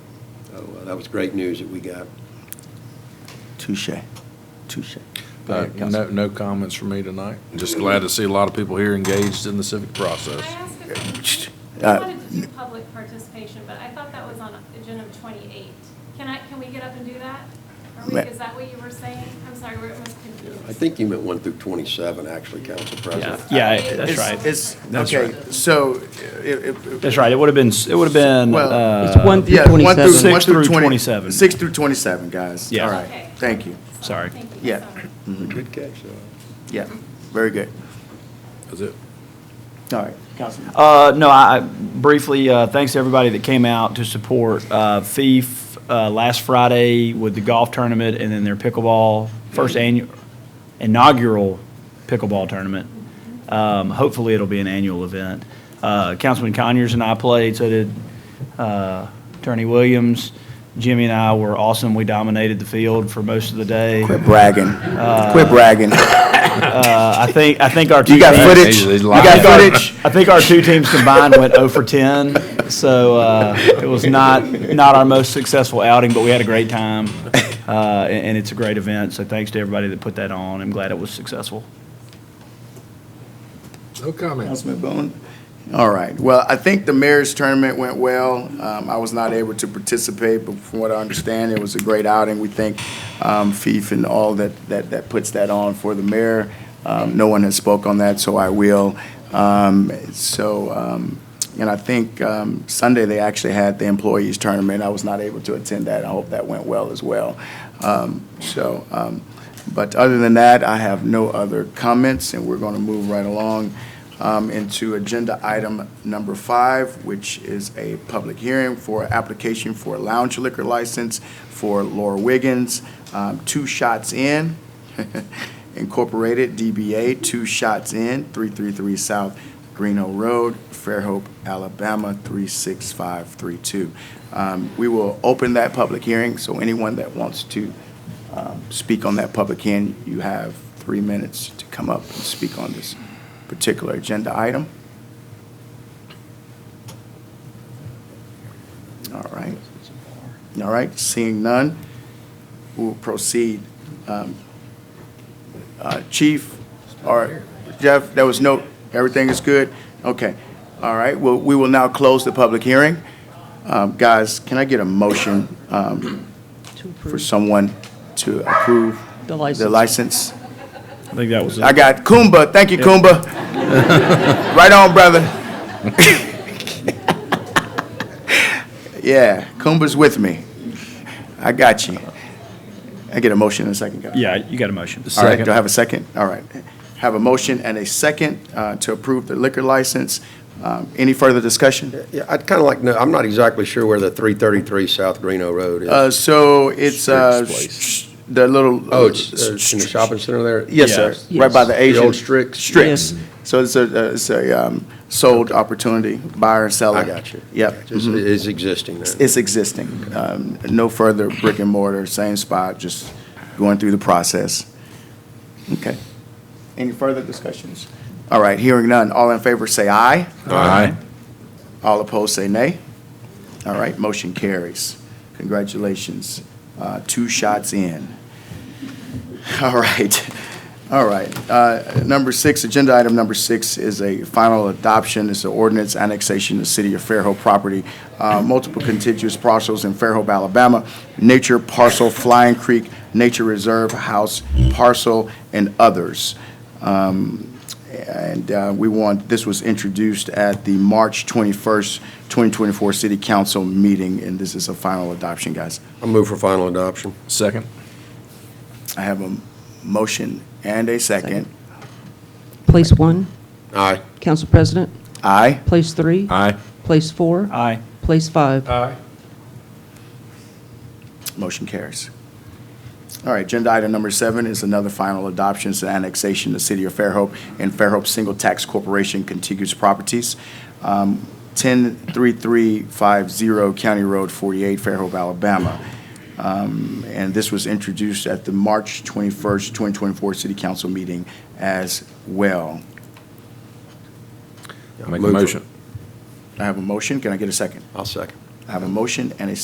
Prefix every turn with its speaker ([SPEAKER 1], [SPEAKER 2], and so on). [SPEAKER 1] So uh, that was great news that we got.
[SPEAKER 2] Touche, touche. Go
[SPEAKER 3] Uh,
[SPEAKER 2] ahead,
[SPEAKER 3] No,
[SPEAKER 2] Councilman.
[SPEAKER 3] no comments from me tonight. Just glad to see a lot of people here engaged in the civic process.
[SPEAKER 4] Can I ask a question?
[SPEAKER 2] Uh,
[SPEAKER 4] I wanted to do public participation, but I thought that was on agenda 28. Can I, can we get up and do that? Are we,
[SPEAKER 2] Ma-
[SPEAKER 4] is that what you were saying? I'm sorry, where it was confused.
[SPEAKER 1] I think you meant one through 27, actually, Council President.
[SPEAKER 5] Yeah, yeah, that's
[SPEAKER 4] It's-
[SPEAKER 5] right.
[SPEAKER 2] It's,
[SPEAKER 6] That's
[SPEAKER 2] okay, so, it,
[SPEAKER 5] That's right. It would have been, it would have been,
[SPEAKER 2] Well-
[SPEAKER 5] uh.
[SPEAKER 7] It's one through
[SPEAKER 2] yeah, one through,
[SPEAKER 7] twenty-seven.
[SPEAKER 2] one
[SPEAKER 5] Six
[SPEAKER 2] through
[SPEAKER 5] through
[SPEAKER 2] twenty.
[SPEAKER 5] 27.
[SPEAKER 2] Six through twenty-seven, guys.
[SPEAKER 5] Yeah.
[SPEAKER 2] All right,
[SPEAKER 4] Okay.
[SPEAKER 2] thank you.
[SPEAKER 4] So,
[SPEAKER 5] Sorry.
[SPEAKER 4] Thank you.
[SPEAKER 2] Yeah.
[SPEAKER 4] Sorry.
[SPEAKER 1] Good catch, though.
[SPEAKER 2] Yeah, very good.
[SPEAKER 3] That's it.
[SPEAKER 2] All right, Councilman.
[SPEAKER 5] Uh, no, I, I- briefly, uh, thanks to everybody that came out to support, uh, FIF, uh, last Friday with the golf tournament and then their pickleball, first annual, inaugural pickleball tournament. Um, hopefully it'll be an annual event. Uh, Councilman Conyers and I played, so did, uh, Attorney Williams. Jimmy and I were awesome. We dominated the field for most of the day.
[SPEAKER 2] Quit bragging, quit bragging.
[SPEAKER 5] Uh, I think, I think our two
[SPEAKER 2] You got
[SPEAKER 5] teams-
[SPEAKER 2] footage,
[SPEAKER 3] He's-
[SPEAKER 2] you
[SPEAKER 3] he's
[SPEAKER 2] got
[SPEAKER 3] lying.
[SPEAKER 2] footage.
[SPEAKER 5] I think our two teams combined went 0 for 10, so uh, it was not, not our most successful outing, but we had a great time, uh, and and it's a great event, so thanks to everybody that put that on. I'm glad it was successful.
[SPEAKER 3] No comments.
[SPEAKER 2] Councilman Bowman? All right. Well, I think the mayor's tournament went well. Um, I was not able to participate, but from what I understand, it was a great outing. We thank um, Fife and all that, that, that puts that on for the mayor. Um, no one has spoke on that, so I will. Um, so, um, and I think um, Sunday they actually had the employees tournament. I was not able to attend that. I hope that went well as well. Um, so, um, but other than that, I have no other comments, and we're going to move right along um, into agenda item number five, which is a public hearing for application for a lounge liquor license for Laura Wiggins, um, Two Shots In Incorporated, DBA Two Shots In, 333 South Greeno Road, Fairhope, Alabama, 36532. Um, We will open that public hearing, so anyone that wants to um, speak on that public hearing, you have three minutes to come up and speak on this particular agenda item. All right. All right, seeing none, we'll proceed. Um, uh, Chief, or Jeff, there was no, everything is good? Okay. All right, well, we will now close the public hearing. Um, Guys, can I get a motion um,
[SPEAKER 7] To
[SPEAKER 2] for
[SPEAKER 7] approve
[SPEAKER 2] someone to approve
[SPEAKER 7] The
[SPEAKER 2] the
[SPEAKER 7] license.
[SPEAKER 2] license?
[SPEAKER 5] I think that was
[SPEAKER 2] I
[SPEAKER 5] it.
[SPEAKER 2] got Kumba. Thank you, Kumba. right on, brother. yeah, Kumba's with me. I got you. I get a motion in a second, guys.
[SPEAKER 5] Yeah, you got a motion.
[SPEAKER 2] All right, do I have a second? All right. Have a motion and a second uh, to approve the liquor license. Um, any further discussion?
[SPEAKER 1] Yeah, I'd kind of like, no, I'm not exactly sure where the 333 South Greeno Road is.
[SPEAKER 2] Uh, so it's uh,
[SPEAKER 3] Strick's place.
[SPEAKER 2] sh- sh- the little.
[SPEAKER 1] Oh, it's uh, in the shopping center there?
[SPEAKER 2] Yes, sir.
[SPEAKER 5] Yes.
[SPEAKER 2] Right by the
[SPEAKER 1] The
[SPEAKER 2] Asian.
[SPEAKER 1] old Strix?
[SPEAKER 2] Strix. So it's a, uh, it's a um, sold opportunity, buyer and seller.
[SPEAKER 1] I got you.
[SPEAKER 2] Yep.
[SPEAKER 1] It's
[SPEAKER 2] Mhm.
[SPEAKER 1] it's existing then.
[SPEAKER 2] It's existing. Um, No further brick and mortar, same spot, just going through the process. Okay. Any further discussions? All right, hearing none. All in favor, say aye.
[SPEAKER 3] Aye.
[SPEAKER 2] All opposed, say nay. All right, motion carries. Congratulations. Uh, Two shots in. All right, all right. Uh, Number six, agenda item number six is a final adoption. It's an ordinance annexation of City of Fairhope property, uh, multiple contiguous parcels in Fairhope, Alabama, nature parcel, Flying Creek, Nature Reserve House parcel, and others. Um, and uh, we want, this was introduced at the March 21st, 2024 City Council meeting, and this is a final adoption, guys.
[SPEAKER 1] I move for final adoption.
[SPEAKER 3] Second.
[SPEAKER 2] I have a motion and a second.
[SPEAKER 7] Place one,
[SPEAKER 1] Aye.
[SPEAKER 7] Council President.
[SPEAKER 2] Aye.
[SPEAKER 7] Place three,
[SPEAKER 3] Aye.
[SPEAKER 7] place four,
[SPEAKER 5] Aye.
[SPEAKER 7] place five.
[SPEAKER 2] Motion carries. All right, agenda item number seven is another final adoption, it's an annexation to City of Fairhope and Fairhope Single Tax Corporation contiguous properties. Um, 103350 County Road 48, Fairhope, Alabama. Um, And this was introduced at the March 21st, 2024 City Council meeting as well.
[SPEAKER 3] Make a
[SPEAKER 1] Move for-
[SPEAKER 3] motion.
[SPEAKER 2] I have a motion, can I get a second?
[SPEAKER 1] I'll second.
[SPEAKER 2] I have a motion and a